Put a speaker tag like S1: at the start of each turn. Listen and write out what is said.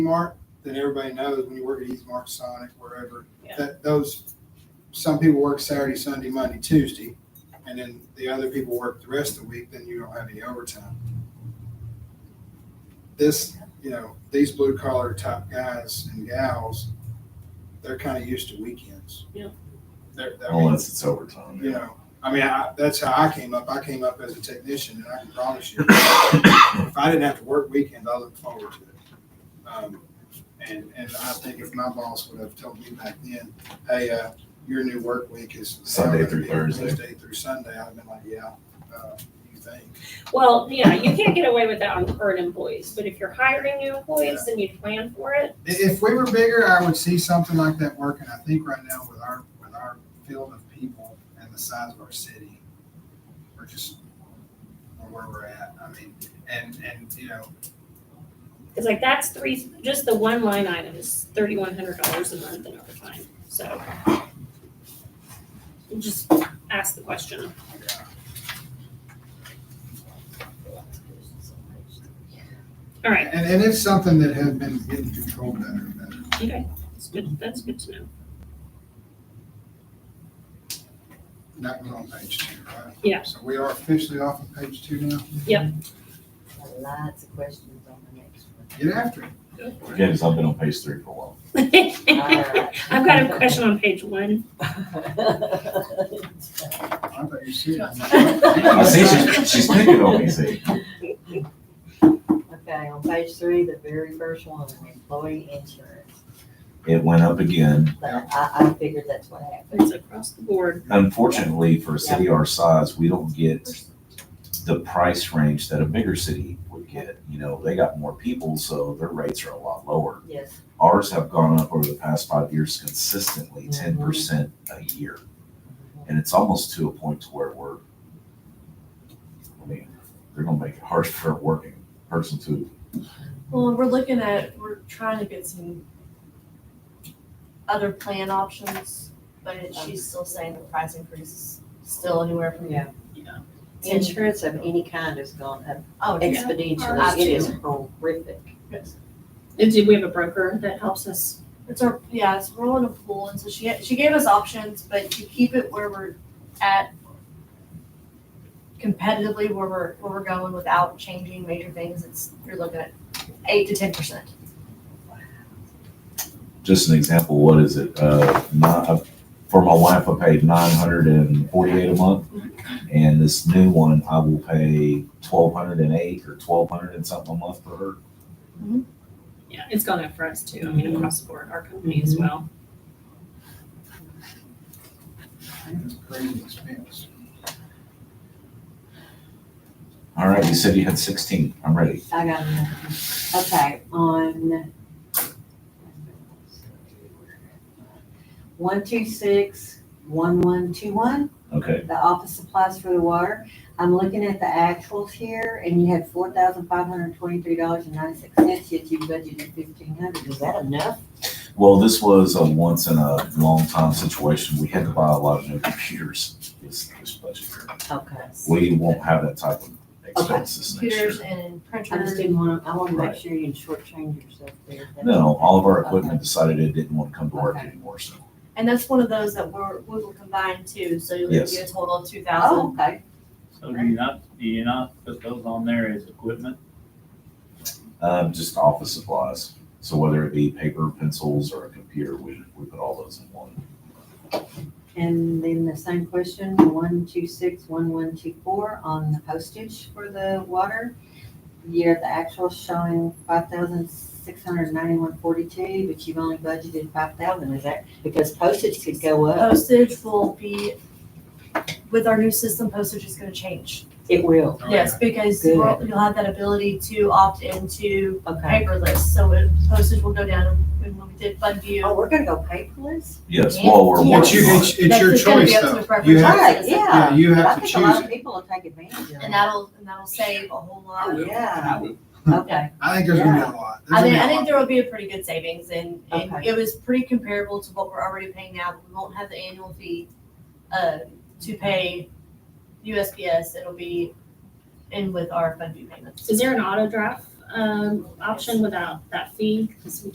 S1: Mart, then everybody knows when you work at East Mart, Sonic, wherever,
S2: Yeah.
S1: that those, some people work Saturday, Sunday, Monday, Tuesday, and then the other people work the rest of the week, then you don't have any overtime. This, you know, these blue collar type guys and gals, they're kind of used to weekends.
S2: Yeah.
S1: They're, they're-
S3: Unless it's overtime.
S1: you know, I mean, I, that's how I came up. I came up as a technician, and I can promise you, if I didn't have to work weekends, I looked forward to it. Um, and and I think if my boss would have told me back then, hey, uh, your new work week is
S3: Sunday through Thursday."
S1: Wednesday through Sunday, I'd have been like, yeah, uh, you think?
S2: Well, yeah, you can't get away with that on current employees, but if you're hiring new employees, then you plan for it.
S1: I- If we were bigger, I would see something like that working. I think right now with our, with our field of people and the size of our city, we're just, we're where we're at. I mean, and, and, you know,
S2: Cause like that's three, just the one line item is thirty-one hundred dollars a month in overtime, so. you Just ask the question.
S1: yeah.
S2: All right,
S1: And, and it's something that has been getting controlled better and better.
S2: okay, that's good, that's good to know.
S1: And That was on page two, right?
S2: Yeah.
S1: So we are officially off of page two now.
S4: Got Lots of questions on the next one.
S1: Get after it.
S3: Again, because I've been on page three for a while.
S2: I've got a question on page one.
S1: I thought you said.
S3: I see she's, she's picking on me, see.
S4: Okay, on page three, the very first one, employee insurance.
S3: It went up again.
S4: But I, I figured that's what happened.
S2: It's across the board.
S3: Unfortunately, for a city our size, we don't get the price range that a bigger city would get. You know, they got more people, so their rates are a lot lower.
S4: Yes,
S3: Ours have gone up over the past five years consistently, ten percent a year. And it's almost to a point to where we're, I mean, they're gonna make it hard for a working person to
S5: Well, we're looking at, we're trying to get some other plan options, but she's still saying the price increase is still anywhere from.
S4: yeah.
S2: Yeah.
S4: Insurance of any kind has gone up
S5: Oh, yeah.
S4: exponentially.
S5: Ours
S4: It is horrific.
S2: And do we have a broker that helps us?
S5: It's our, yeah, it's rolling a pool, and so she, she gave us options, but to keep it where we're at competitively where we're, where we're going without changing major things, it's, you're looking at eight to ten percent.
S3: just an example, what is it? Uh, nine, for my wife, I paid nine hundred and forty-eight a month, and this new one, I will pay twelve hundred and eight or twelve hundred and something a month for her.
S2: Yeah, it's gone up for us too. I mean, across the board, our company as well.
S1: It's crazy expense.
S3: All right, you said you had sixteen. I'm ready.
S4: I got another one. Okay, on. One, two, six, one, one, two, one,
S3: Okay,
S4: the office supplies for the water. I'm looking at the actuals here and you had four thousand five hundred twenty-three dollars and ninety-six cents, yet you budgeted fifteen hundred. Is that enough?
S3: well, this was a once in a long time situation. We had to buy a lot of new computers this, this budget year.
S4: Okay.
S3: We won't have that type of expenses next year.
S5: Computers and
S4: I just
S5: printers.
S4: didn't want to, I want to
S3: Right.
S4: make sure you didn't shortchange yourself there. That's-
S3: No, all of our
S4: Okay.
S3: equipment decided it didn't want to come to work
S4: Okay.
S3: anymore, so.
S5: And that's one of those that we're, we will combine too, so you'll
S3: Yes.
S5: get a total of two
S4: Oh,
S5: thousand.
S4: okay.
S6: So do you not, do you not put those on there as equipment?
S3: Um, just office supplies. So whether it be paper, pencils, or a computer, we, we put all those in one.
S4: And then the same question, one, two, six, one, one, two, four, on the postage for the water. Year, the actual showing five thousand six hundred ninety-one forty-two, but you've only budgeted five thousand, is that, because postage could go up.
S5: Postage will be, with our new system, postage is gonna change.
S4: It will,
S1: Oh,
S5: Yes, because
S4: Good.
S5: we'll- you'll have that ability to opt into
S4: okay.
S5: paperless, so it- postage will go down when when we did fund
S4: Oh,
S5: view.
S4: we're gonna go paperless?
S3: Yes, well, we're
S5: Yeah.
S1: It's
S3: working
S1: you,
S3: on
S1: it's,
S3: it.
S1: it's your
S5: That's just gonna be
S1: choice
S5: up to the
S1: though. You
S5: preference of the
S1: have,
S4: Right,
S5: citizen.
S1: yeah,
S4: yeah.
S1: you
S4: I
S1: have to
S4: think a lot
S1: choose
S4: of
S1: it.
S4: people will take advantage of it.
S5: And that'll, and that'll save a whole lot.
S4: Yeah, okay,
S1: I think there's gonna be a lot. There's gonna
S5: I think, I
S1: be a
S5: think
S1: lot.
S5: there will be a pretty good savings and, and
S4: Okay.
S5: it was pretty comparable to what we're already paying now, but we won't have the annual fee, uh, to pay USPS, it'll be in with our fund due payments.
S2: Is there an auto draft um, option without that fee, because we